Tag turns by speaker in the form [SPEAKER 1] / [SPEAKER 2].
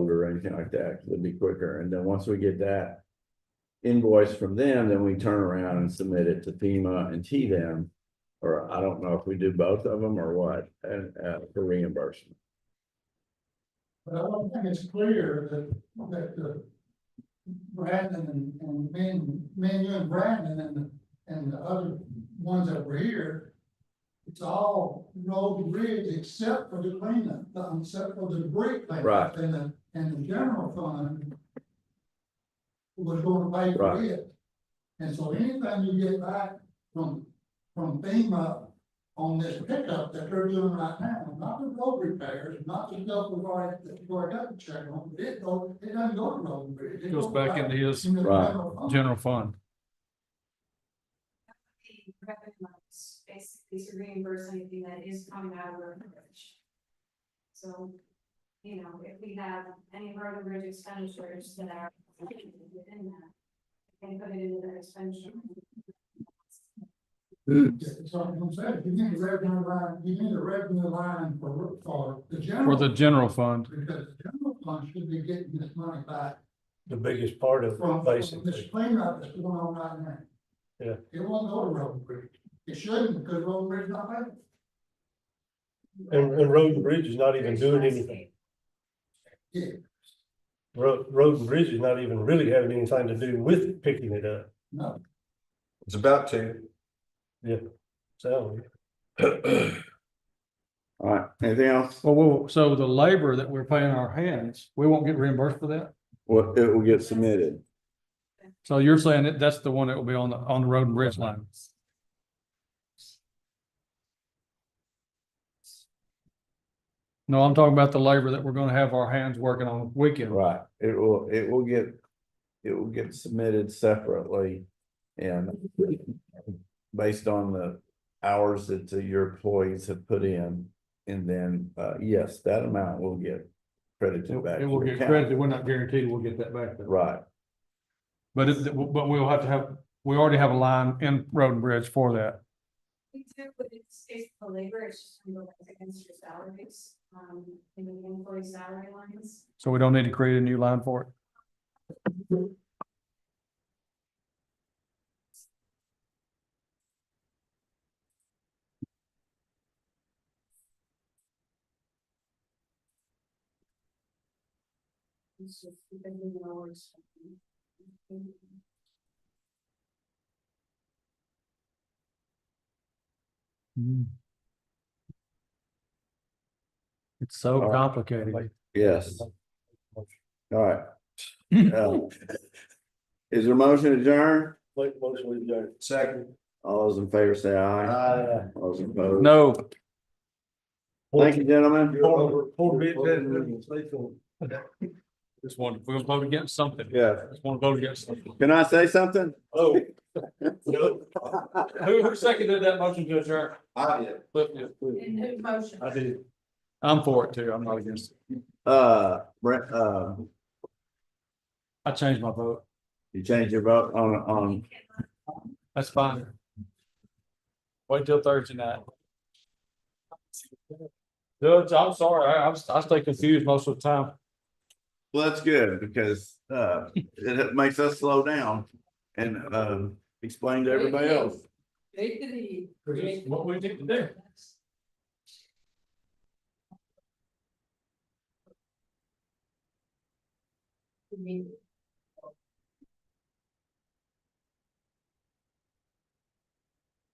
[SPEAKER 1] anything like that, 'cause it'd be quicker, and then once we get that. Invoice from them, then we turn around and submit it to FEMA and T them. Or I don't know if we do both of them or what, and, uh, for reimbursement.
[SPEAKER 2] But I don't think it's clear that, that the Brandon and, and man, man, you and Brandon and, the- and the other ones that were here. It's all road and bridge except for the cleanup, um, except for the debris cleanup.
[SPEAKER 1] Right.
[SPEAKER 2] And the, and the general fund. Was gonna pay for
[SPEAKER 1] Right.
[SPEAKER 2] it. And so anything you get back from, from FEMA on this pickup that they're doing right now, not the road repairs, not the stuff we've already, that we've already got to check on, but it go, it doesn't go to road and bridge. It
[SPEAKER 3] Goes back into his
[SPEAKER 2] in the
[SPEAKER 1] Right.
[SPEAKER 2] general fund.
[SPEAKER 3] general fund.
[SPEAKER 4] the revenue amounts, basically to reimburse anything that is coming out of road and bridge. So, you know, if we have any road and bridge expenditures that are within that, we can put it into that expenditure.
[SPEAKER 2] So I'm saying, you need a revenue line, you need a revenue line for, for the
[SPEAKER 3] For
[SPEAKER 2] general.
[SPEAKER 3] the general fund,
[SPEAKER 2] Because the general fund should be getting this money back
[SPEAKER 5] the biggest part of
[SPEAKER 2] from
[SPEAKER 5] it,
[SPEAKER 2] from this
[SPEAKER 5] basically.
[SPEAKER 2] cleanup that's going on right now.
[SPEAKER 5] Yeah.
[SPEAKER 2] It won't go to road and bridge. It shouldn't, because road and bridge not paying.
[SPEAKER 5] And, and Road and Bridge is not even doing anything.
[SPEAKER 2] Yeah,
[SPEAKER 5] Road, Road and Bridge is not even really having anything to do with picking it up.
[SPEAKER 2] no.
[SPEAKER 6] It's about to.
[SPEAKER 5] So
[SPEAKER 1] All right, anything else?
[SPEAKER 3] well, we'll- so the labor that we're paying our hands, we won't get reimbursed for that?
[SPEAKER 1] Well, it will get submitted,
[SPEAKER 3] So you're saying that that's the one that will be on the, on the road and bridge line? No, I'm talking about the labor that we're gonna have our hands working on weekend.
[SPEAKER 1] right, it will, it will get, it will get submitted separately. And based on the hours that the- your employees have put in, and then, uh, yes, that amount will get credited back.
[SPEAKER 3] It will
[SPEAKER 1] to the
[SPEAKER 3] get
[SPEAKER 1] county.
[SPEAKER 3] credited, we're not guaranteed we'll get that back. though.
[SPEAKER 1] Right,
[SPEAKER 3] But it, but we'll have to have, we already have a line in road and bridge for that.
[SPEAKER 4] We do, but it's basically labor, it's just gonna go back against your salaries, um, in the employee salary lines.
[SPEAKER 3] So we don't need to create a new line for it.
[SPEAKER 4] It's just, we've been doing our work.
[SPEAKER 3] Mm. It's so
[SPEAKER 1] All right.
[SPEAKER 3] complicated.
[SPEAKER 1] yes, all right. Uh, Is there a motion adjourned?
[SPEAKER 5] Like most we do.
[SPEAKER 6] Second.
[SPEAKER 1] All those in favor say aye.
[SPEAKER 5] Aye.
[SPEAKER 1] All those opposed.
[SPEAKER 3] No,
[SPEAKER 1] Thank you, gentlemen.
[SPEAKER 5] Poor- poor bit that-
[SPEAKER 3] just one, we're gonna vote against something.
[SPEAKER 1] Yeah.
[SPEAKER 3] Just wanna vote against something.
[SPEAKER 1] Can I say something?
[SPEAKER 5] Oh. No,
[SPEAKER 3] Who, who seconded that motion to adjourn?
[SPEAKER 6] I
[SPEAKER 1] Oh,
[SPEAKER 6] did.
[SPEAKER 3] Cliff did.
[SPEAKER 4] In whose motion?
[SPEAKER 5] I did.
[SPEAKER 3] I'm for it too. I'm not against it.
[SPEAKER 1] Uh, Brent, uh,
[SPEAKER 3] I changed my vote.
[SPEAKER 1] you changed your vote on, on,
[SPEAKER 3] That's fine. Wait till Thursday night. Judge, I'm sorry. I, I'm, I stay confused most of the time.
[SPEAKER 1] well, that's good because, uh, it makes us slow down and, um, explain to everybody else.
[SPEAKER 3] What we need to do.
[SPEAKER 4] Meeting.